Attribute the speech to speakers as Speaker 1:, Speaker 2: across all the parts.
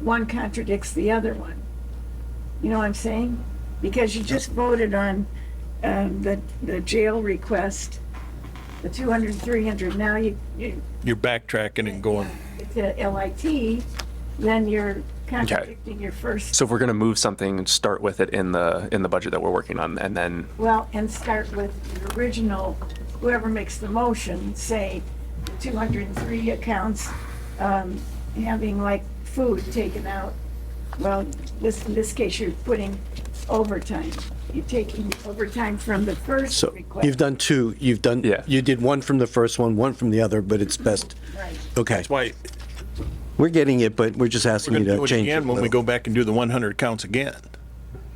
Speaker 1: one contradicts the other one. You know what I'm saying? Because you just voted on, um, the, the jail request, the 200, 300, now you, you,
Speaker 2: You're backtracking and going,
Speaker 1: to LIT, then you're contradicting your first,
Speaker 3: So if we're going to move something, start with it in the, in the budget that we're working on and then,
Speaker 1: well, and start with your original, whoever makes the motion, say, 203 accounts, um, having like food taken out. Well, this, in this case, you're putting overtime. You're taking overtime from the first
Speaker 4: So
Speaker 1: request.
Speaker 4: you've done two, you've done,
Speaker 3: Yeah.
Speaker 4: you did one from the first one, one from the other, but it's best,
Speaker 1: Right.
Speaker 4: okay.
Speaker 2: why,
Speaker 4: We're getting it, but we're just
Speaker 2: we're
Speaker 4: asking you
Speaker 2: gonna
Speaker 4: to
Speaker 2: do it
Speaker 4: change it a
Speaker 2: again when we
Speaker 4: little.
Speaker 2: go back and do the one hundred counts again.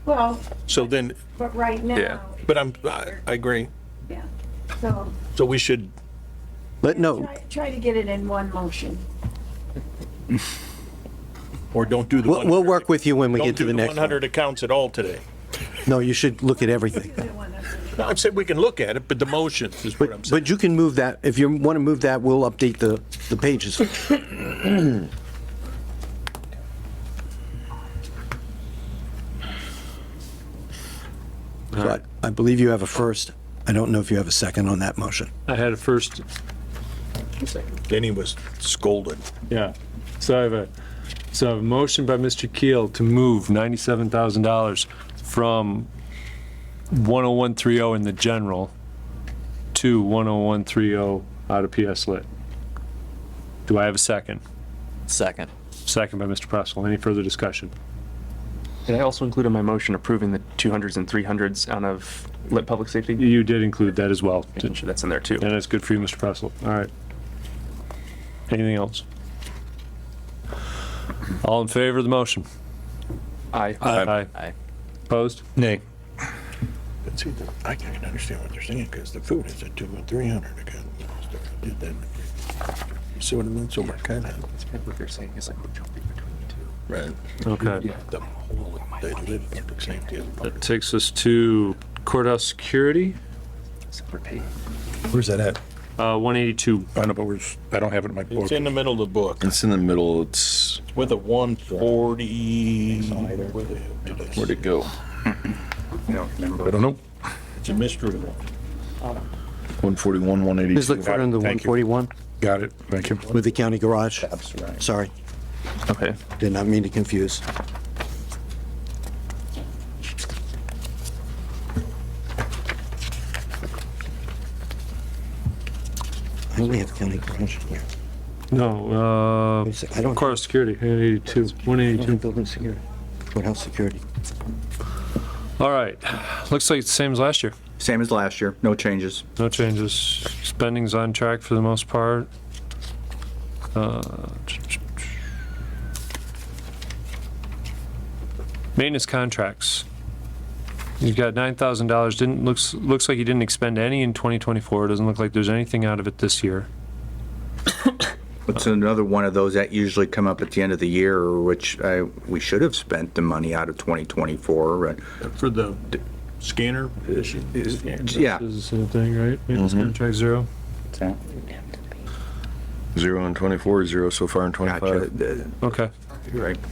Speaker 1: Well,
Speaker 2: So then,
Speaker 1: but right
Speaker 3: Yeah.
Speaker 1: now,
Speaker 2: but I'm, I, I agree.
Speaker 1: yeah, so.
Speaker 2: So we should,
Speaker 4: Let, no,
Speaker 1: try- Try to get it in one motion.
Speaker 2: or don't do the.
Speaker 4: we'll, we'll
Speaker 2: 100.
Speaker 4: work with you when we
Speaker 2: Don't
Speaker 4: get to
Speaker 2: do
Speaker 4: the
Speaker 2: the
Speaker 4: next
Speaker 2: one
Speaker 4: one.
Speaker 2: hundred accounts at all today.
Speaker 4: No, you should look at everything.
Speaker 1: Is it 100?
Speaker 2: No, I've said we can look at it, but the motion is what I'm
Speaker 4: But,
Speaker 2: saying.
Speaker 4: but you can move that, if you want to move that, we'll update the, the pages. But I believe you have a first. I don't know if you have a second on that motion.
Speaker 5: I had a first,
Speaker 2: Denny was scolded.
Speaker 5: yeah. So I have a, so I have a motion by Mr. Keel to move $97,000 from 10130 in the general to 10130 out of PS Lit. Do I have a second?
Speaker 6: Second.
Speaker 5: Second by Mr. Pressel. Any further discussion?
Speaker 3: did I also include in my motion approving the 200s and 300s out of lit public safety?
Speaker 5: You did include that as well.
Speaker 3: Making sure that's in there too.
Speaker 5: And that's good for you, Mr. Pressel. All right. Anything else? All in favor of the motion?
Speaker 3: Aye. Um,
Speaker 5: Aye.
Speaker 6: Aye.
Speaker 5: Opposed?
Speaker 2: Nay. But see, the- I can't understand what they're saying, because the food is at two and three hundred again. Did that. You See what I mean? So we're kind of.
Speaker 3: It's kind of what they're saying is like we're jumping between the two.
Speaker 2: Right.
Speaker 5: Okay.
Speaker 2: The whole, they live public safety as part
Speaker 5: That
Speaker 2: of-
Speaker 5: takes us to courthouse security,
Speaker 3: Separate page.
Speaker 7: Where's that at?
Speaker 5: uh, 182.
Speaker 7: I don't know, but where's, I don't have it in my book.
Speaker 2: It's in the middle of the book,
Speaker 7: It's in the middle, it's,
Speaker 2: with a one forty. Where'd
Speaker 7: it go?
Speaker 3: I don't remember.
Speaker 7: I don't know.
Speaker 2: It's a mystery one.
Speaker 7: 141, 182.
Speaker 4: Just look for it under
Speaker 7: Thank you.
Speaker 4: 141
Speaker 7: Got it, thank you.
Speaker 4: with the county garage.
Speaker 7: right.
Speaker 4: Sorry,
Speaker 3: Okay.
Speaker 4: did not mean to confuse. I only have county garage here.
Speaker 5: No,
Speaker 4: Wait a sec, I don't-
Speaker 5: uh, courthouse security, 182, 182.
Speaker 4: Building security. Courthouse security.
Speaker 5: All right. Looks like it's the same as last year.
Speaker 6: Same as last year, no changes.
Speaker 5: No changes. Spending's on track for the most part. Uh, Maintenance contracts. You've got nine thousand dollars, didn't, looks, looks like you didn't expend any in twenty twenty-four, doesn't look like there's anything out of it this year.
Speaker 6: It's another one of those that usually come up at the end of the year, which I, we should have spent the money out of 2024. and-
Speaker 2: For the scanner issue?
Speaker 6: Yeah, Mm-hmm.
Speaker 5: This is the same thing, right? Maintenance contract zero?
Speaker 7: Zero in 24, zero so far in
Speaker 6: gotcha.
Speaker 7: 25.
Speaker 6: The-
Speaker 5: Okay.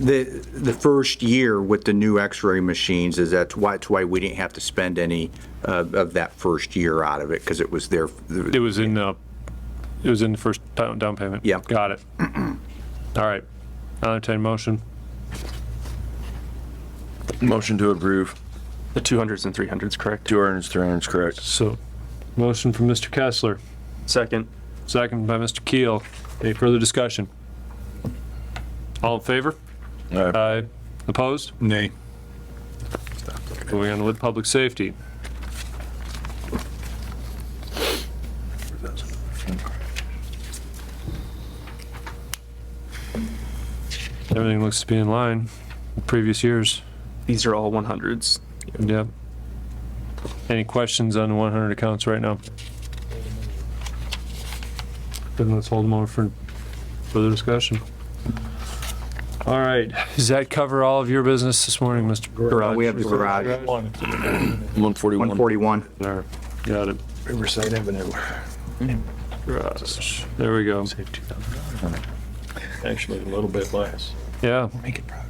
Speaker 6: The, the first year with the new x-ray machines is that's why, it's why we didn't have to spend any uh, of that first year out of it, because it was there.
Speaker 5: It was in the, it was in the first down, down payment?
Speaker 6: Yeah.
Speaker 5: Got it. All right. I'll entertain a motion.
Speaker 7: Motion to approve,
Speaker 3: The 200s and 300s, correct?
Speaker 7: 200s, 300s, correct.
Speaker 5: So, motion from Mr. Kessler.
Speaker 3: Second.
Speaker 5: Second by Mr. Keel. Any further discussion? All in favor?
Speaker 7: Aye.
Speaker 5: Aye. Opposed?
Speaker 7: Nay.
Speaker 5: Moving on to lit public safety. Everything looks to be in line with previous years.
Speaker 3: These are all 100s.
Speaker 5: Yep. Any questions on the 100 accounts right now? Then let's hold them over for further discussion. All right, does that cover all of your business this morning, Mr. Garage?
Speaker 6: We have the garage,
Speaker 7: 141.
Speaker 6: 141.
Speaker 5: There, Got it.
Speaker 7: Riverside Avenue.
Speaker 5: Garage. There we go.
Speaker 2: Actually, a little bit less.
Speaker 8: Yeah.
Speaker 5: Make it private.